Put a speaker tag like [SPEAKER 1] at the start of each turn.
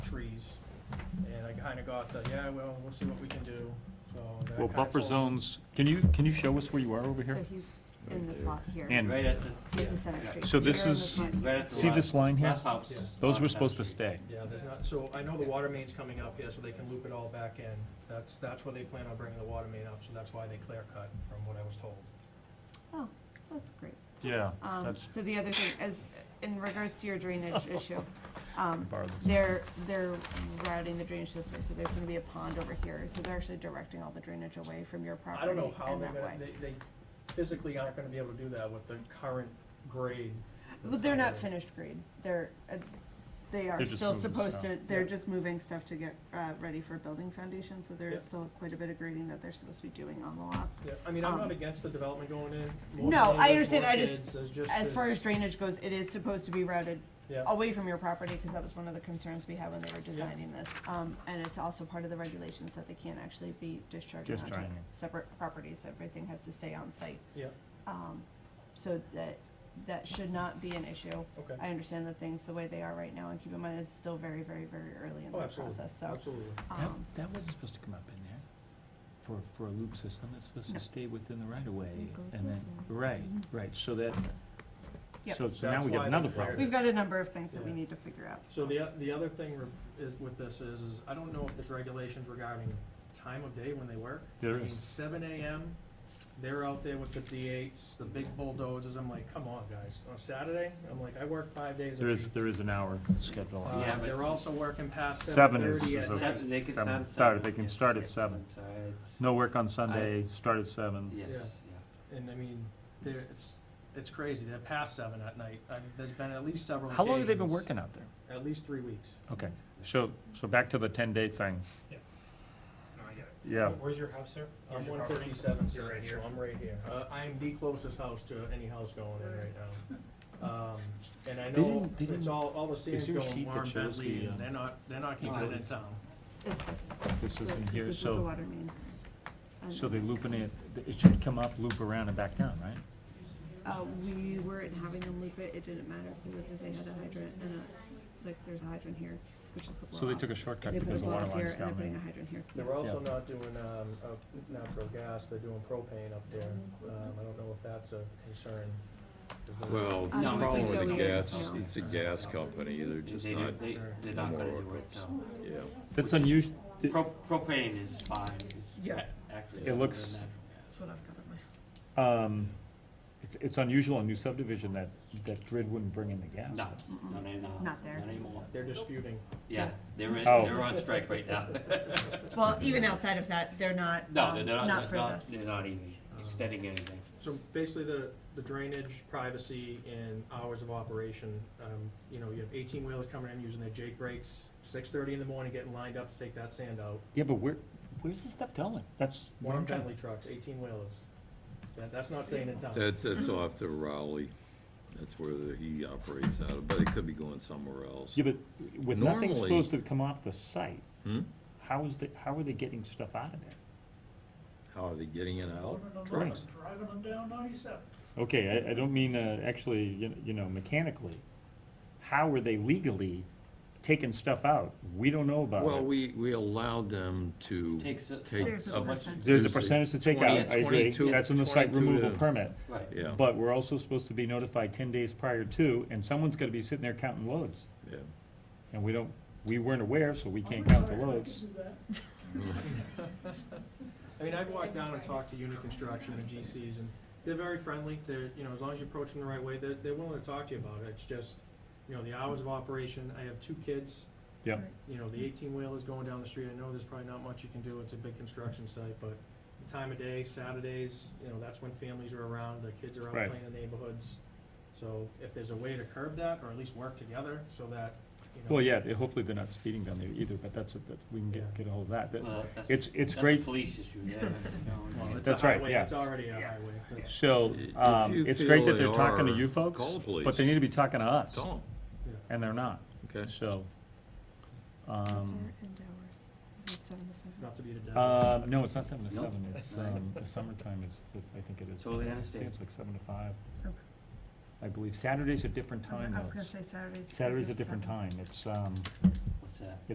[SPEAKER 1] trees. And I kinda got the, yeah, well, we'll see what we can do, so. that
[SPEAKER 2] Well,
[SPEAKER 1] kinda
[SPEAKER 2] buffer
[SPEAKER 1] told-
[SPEAKER 2] zones, can you, can you show us where you are over
[SPEAKER 3] So
[SPEAKER 2] here?
[SPEAKER 3] he's in this lot here.
[SPEAKER 2] And
[SPEAKER 4] Right at the,
[SPEAKER 3] This is Center
[SPEAKER 4] Yeah.
[SPEAKER 3] Street.
[SPEAKER 2] So this
[SPEAKER 3] You're in
[SPEAKER 2] is-
[SPEAKER 3] lot here.
[SPEAKER 4] right at the
[SPEAKER 2] see this
[SPEAKER 4] last,
[SPEAKER 2] line here?
[SPEAKER 4] last house.
[SPEAKER 1] Yeah.
[SPEAKER 2] Those
[SPEAKER 4] on
[SPEAKER 2] were
[SPEAKER 4] Center
[SPEAKER 2] supposed to
[SPEAKER 4] Street.
[SPEAKER 2] stay.
[SPEAKER 1] Yeah, there's not, so I know the water main's coming up here, so they can loop it all back in. That's, that's where they plan on bringing the water main up, so that's why they clear cut, from what I was told.
[SPEAKER 3] Oh, that's great.
[SPEAKER 2] Yeah,
[SPEAKER 3] Um,
[SPEAKER 2] that's,
[SPEAKER 3] so the other thing is, in regards to your drainage issue, um,
[SPEAKER 2] borrow this.
[SPEAKER 3] they're, they're routing the drainage this way, so there's gonna be a pond over here, so they're actually directing all the drainage away from your
[SPEAKER 1] I
[SPEAKER 3] property
[SPEAKER 1] don't
[SPEAKER 3] and that
[SPEAKER 1] know
[SPEAKER 3] way.
[SPEAKER 1] how they're gonna, they, they physically aren't gonna be able to do that with the current grade.
[SPEAKER 3] But they're not finished grade, they're, uh, they are
[SPEAKER 2] They're just
[SPEAKER 3] still
[SPEAKER 2] moving
[SPEAKER 3] supposed to,
[SPEAKER 2] stuff.
[SPEAKER 3] they're
[SPEAKER 1] Yeah.
[SPEAKER 3] just moving stuff to get, uh, ready for building foundation, so there is
[SPEAKER 1] Yeah.
[SPEAKER 3] still quite a bit of grading that they're supposed to be doing on the lots.
[SPEAKER 1] Yeah, I mean, I'm not
[SPEAKER 3] Um,
[SPEAKER 1] against the development going in. More
[SPEAKER 3] No,
[SPEAKER 1] buildings,
[SPEAKER 3] I understand,
[SPEAKER 1] more
[SPEAKER 3] I just-
[SPEAKER 1] kids, there's just
[SPEAKER 3] As far
[SPEAKER 1] this-
[SPEAKER 3] as drainage goes, it is supposed to be routed
[SPEAKER 1] Yeah,
[SPEAKER 3] away from your property, because that was one of the concerns we had when they were designing this. Um, and it's also part of the regulations that they can't actually be discharging onto
[SPEAKER 2] Discharging.
[SPEAKER 3] separate properties, everything has to stay on site.
[SPEAKER 1] yeah,
[SPEAKER 3] Um, so that, that should not be an issue.
[SPEAKER 1] okay. Oh,
[SPEAKER 3] I understand the things the way they are right now, and keep in mind, it's still very, very, very early in
[SPEAKER 1] Oh,
[SPEAKER 3] the
[SPEAKER 1] absolutely,
[SPEAKER 3] process, so.
[SPEAKER 1] absolutely.
[SPEAKER 2] That,
[SPEAKER 3] um,
[SPEAKER 2] that wasn't supposed to come up in there, for, for a loop system, it's supposed
[SPEAKER 3] No.
[SPEAKER 2] to stay within the right of way,
[SPEAKER 3] It goes
[SPEAKER 2] and
[SPEAKER 3] this
[SPEAKER 2] then,
[SPEAKER 3] way. Mm-hmm.
[SPEAKER 2] right, right, so that,
[SPEAKER 3] Yep.
[SPEAKER 2] so, so now
[SPEAKER 1] That's
[SPEAKER 2] we got
[SPEAKER 1] why
[SPEAKER 2] another
[SPEAKER 1] they cleared
[SPEAKER 2] problem.
[SPEAKER 3] We've got a number of things that we
[SPEAKER 1] Yeah.
[SPEAKER 3] need to figure out.
[SPEAKER 1] So the, o- the other thing re- is, with this is, is I don't know if there's regulations regarding time of day when they work.
[SPEAKER 2] There
[SPEAKER 1] I mean,
[SPEAKER 2] is.
[SPEAKER 1] Seven AM, they're out there with the D eights, the big bulldozers, I'm like, come on, guys, on Saturday, I'm like, I work five days a
[SPEAKER 2] There
[SPEAKER 1] week.
[SPEAKER 2] is, there is an hour schedule.
[SPEAKER 1] Uh,
[SPEAKER 2] on it.
[SPEAKER 4] Yeah, but-
[SPEAKER 1] they're also working past seven
[SPEAKER 2] Seven is-
[SPEAKER 1] thirty
[SPEAKER 2] is
[SPEAKER 1] at
[SPEAKER 2] okay.
[SPEAKER 1] night.
[SPEAKER 4] Seven, they can
[SPEAKER 2] Seven.
[SPEAKER 4] start at seven.
[SPEAKER 2] Sorry, they can
[SPEAKER 4] yes,
[SPEAKER 2] start at
[SPEAKER 4] yes,
[SPEAKER 2] seven.
[SPEAKER 4] I'm sorry, it's-
[SPEAKER 2] No work on Sunday, start at seven.
[SPEAKER 4] Yes,
[SPEAKER 1] Yeah.
[SPEAKER 4] yeah.
[SPEAKER 1] And I mean, they're, it's, it's crazy, they're past seven at night, I, there's been at least several
[SPEAKER 2] How long have they been
[SPEAKER 1] occasions,
[SPEAKER 2] working out there?
[SPEAKER 1] At least three weeks.
[SPEAKER 2] Okay, so, so back to the ten-day thing, yeah.
[SPEAKER 5] Where's your house, sir?
[SPEAKER 1] I'm
[SPEAKER 5] Where's your
[SPEAKER 1] one
[SPEAKER 5] property?
[SPEAKER 1] fifty-seven,
[SPEAKER 5] You're right
[SPEAKER 1] so
[SPEAKER 5] here.
[SPEAKER 1] I'm right here. Uh, I'm the closest house to any house going in right now. Um, and I
[SPEAKER 2] They
[SPEAKER 1] know
[SPEAKER 2] didn't- they
[SPEAKER 1] it's
[SPEAKER 2] didn't-
[SPEAKER 1] all, all the scenes
[SPEAKER 2] there a
[SPEAKER 1] go
[SPEAKER 2] sheet
[SPEAKER 1] in
[SPEAKER 2] that
[SPEAKER 1] Warren
[SPEAKER 2] shows the,
[SPEAKER 1] Bentley,
[SPEAKER 2] uh,
[SPEAKER 1] and they're not, they're not keeping it in
[SPEAKER 4] utilities?
[SPEAKER 1] town.
[SPEAKER 3] It's this.
[SPEAKER 2] This
[SPEAKER 3] So
[SPEAKER 2] isn't here,
[SPEAKER 3] This is the
[SPEAKER 2] so,
[SPEAKER 3] water main. And,
[SPEAKER 2] so they looping it, it should come up, loop around and back down, right?
[SPEAKER 3] Uh, we weren't having them loop it, it didn't matter, because they had a hydrant and a, like, there's a hydrant here, which is the blow
[SPEAKER 2] So they
[SPEAKER 3] off.
[SPEAKER 2] took a shortcut
[SPEAKER 3] They put a
[SPEAKER 2] because the
[SPEAKER 3] blow
[SPEAKER 2] water
[SPEAKER 3] off here,
[SPEAKER 2] line's
[SPEAKER 3] and they're
[SPEAKER 2] down
[SPEAKER 3] putting a
[SPEAKER 2] there.
[SPEAKER 3] hydrant here.
[SPEAKER 1] They're also
[SPEAKER 2] Yeah.
[SPEAKER 1] not doing, um, uh, natural gas, they're doing propane up there. Um, I don't know if that's a concern. 'cause they're-
[SPEAKER 6] Well, the
[SPEAKER 3] I don't
[SPEAKER 6] problem
[SPEAKER 3] think
[SPEAKER 6] with the
[SPEAKER 3] so, yeah.
[SPEAKER 6] gas,
[SPEAKER 3] No.
[SPEAKER 6] it's a gas company, they're just
[SPEAKER 4] They,
[SPEAKER 6] not,
[SPEAKER 4] don't- they, they're not gonna do it, so.
[SPEAKER 6] yeah.
[SPEAKER 2] That's unusual,
[SPEAKER 4] Pro- Propane is fine, it's
[SPEAKER 3] Yeah.
[SPEAKER 4] actually.
[SPEAKER 2] It
[SPEAKER 4] better
[SPEAKER 2] looks-
[SPEAKER 4] than
[SPEAKER 3] That's what I've got on my house.
[SPEAKER 2] um, it's, it's unusual in new subdivision that, that grid wouldn't bring in the gas.
[SPEAKER 4] that. No, not anymore.
[SPEAKER 3] Not there.
[SPEAKER 4] Not anymore.
[SPEAKER 1] They're disputing.
[SPEAKER 4] Yeah, they're, in-
[SPEAKER 2] Oh.
[SPEAKER 4] they're on strike right now.
[SPEAKER 3] Well, even outside of that, they're not,
[SPEAKER 4] No,
[SPEAKER 3] um,
[SPEAKER 4] they're not,
[SPEAKER 3] not
[SPEAKER 4] not,
[SPEAKER 3] for
[SPEAKER 4] not-
[SPEAKER 3] this.
[SPEAKER 4] they're not even
[SPEAKER 2] Uh,
[SPEAKER 4] extending anything.
[SPEAKER 1] So basically, the, the drainage, privacy, and hours of operation, um, you know, you have eighteen wheelers coming in using their Jake brakes, six thirty in the morning, getting lined up to take that sand out.
[SPEAKER 2] Yeah, but where, where's this stuff going? That's. what
[SPEAKER 1] Warren
[SPEAKER 2] I'm trying-
[SPEAKER 1] Bentley trucks, eighteen wheelers. That, that's not staying in town.
[SPEAKER 6] That's, that's off to Raleigh, that's where the- he operates out of, but it could be going somewhere else.
[SPEAKER 2] Yeah, but with nothing
[SPEAKER 6] Normally-
[SPEAKER 2] supposed to come off the site,
[SPEAKER 6] Hmm?
[SPEAKER 2] how is the, how are they getting stuff out of there?
[SPEAKER 6] How are they getting it out?
[SPEAKER 2] Right.
[SPEAKER 6] Trucks.
[SPEAKER 5] Driving them down ninety-seven.
[SPEAKER 2] Okay, I, I don't mean, uh, actually, you kn- you know, mechanically. How are they legally taking stuff out? We don't know about it.
[SPEAKER 6] Well, we, we allowed them to take.
[SPEAKER 4] Takes so- so
[SPEAKER 3] There's a
[SPEAKER 6] up-
[SPEAKER 3] percentage.
[SPEAKER 2] There's a
[SPEAKER 6] to say
[SPEAKER 2] percentage to take out,
[SPEAKER 6] 20
[SPEAKER 2] I agree,
[SPEAKER 6] 22
[SPEAKER 2] that's in the site
[SPEAKER 6] 22
[SPEAKER 2] removal
[SPEAKER 6] to-
[SPEAKER 2] permit.
[SPEAKER 4] Right.
[SPEAKER 6] Yeah,
[SPEAKER 2] But we're also supposed to be notified ten days prior to, and someone's gonna be sitting there counting loads.
[SPEAKER 6] yeah.
[SPEAKER 2] And we don't, we weren't aware, so we can't count the loads.
[SPEAKER 1] I mean, I've walked down and talked to Unit Construction and GCs, and they're very friendly, they're, you know, as long as you approach them the right way, they're, they're willing to talk to you about it, it's just, you know, the hours of operation, I have two kids,
[SPEAKER 2] Yep.
[SPEAKER 1] you know, the eighteen wheelers going down the street, I know there's probably not much you can do, it's a big construction site, but the time of day, Saturdays, you know, that's when families are around, the kids are out
[SPEAKER 2] Right.
[SPEAKER 1] playing in the neighborhoods. So if there's a way to curb that, or at least work together, so that, you know.
[SPEAKER 2] Well, yeah, they- hopefully they're not speeding down there either, but that's, that, we can get, get a hold of that. That-
[SPEAKER 4] Well, that's-
[SPEAKER 2] It's- it's
[SPEAKER 4] that's a
[SPEAKER 2] great-
[SPEAKER 4] Police issue there. you know, and-
[SPEAKER 1] Well, it's a
[SPEAKER 2] That's right,
[SPEAKER 1] highway,
[SPEAKER 2] yeah.
[SPEAKER 1] It's already a
[SPEAKER 2] Yeah.
[SPEAKER 1] highway.
[SPEAKER 2] So,
[SPEAKER 6] If
[SPEAKER 2] um,
[SPEAKER 6] you
[SPEAKER 2] it's great
[SPEAKER 6] feel
[SPEAKER 2] that
[SPEAKER 6] they
[SPEAKER 2] they're talking to
[SPEAKER 6] are,
[SPEAKER 2] you folks,
[SPEAKER 6] call the police.
[SPEAKER 2] but they need to be talking to us,
[SPEAKER 6] Tell
[SPEAKER 2] and they're not,
[SPEAKER 6] them, okay?
[SPEAKER 2] so.
[SPEAKER 3] What's
[SPEAKER 2] Um,
[SPEAKER 3] our end hours? Is it seven to seven?
[SPEAKER 1] Not to be the devil's.
[SPEAKER 2] uh, no, it's not seven to
[SPEAKER 4] Nope.
[SPEAKER 2] seven, it's, um, the summertime is, is- I think it is.
[SPEAKER 4] Totally
[SPEAKER 2] I think
[SPEAKER 4] understand.
[SPEAKER 2] it's like seven to five,
[SPEAKER 3] Okay.
[SPEAKER 2] I believe. Saturday's a different
[SPEAKER 3] I
[SPEAKER 2] time
[SPEAKER 3] was
[SPEAKER 2] though.
[SPEAKER 3] gonna say Saturdays. is
[SPEAKER 2] Saturday's a
[SPEAKER 3] it
[SPEAKER 2] different
[SPEAKER 3] seven?
[SPEAKER 2] time, it's, um,
[SPEAKER 4] What's that?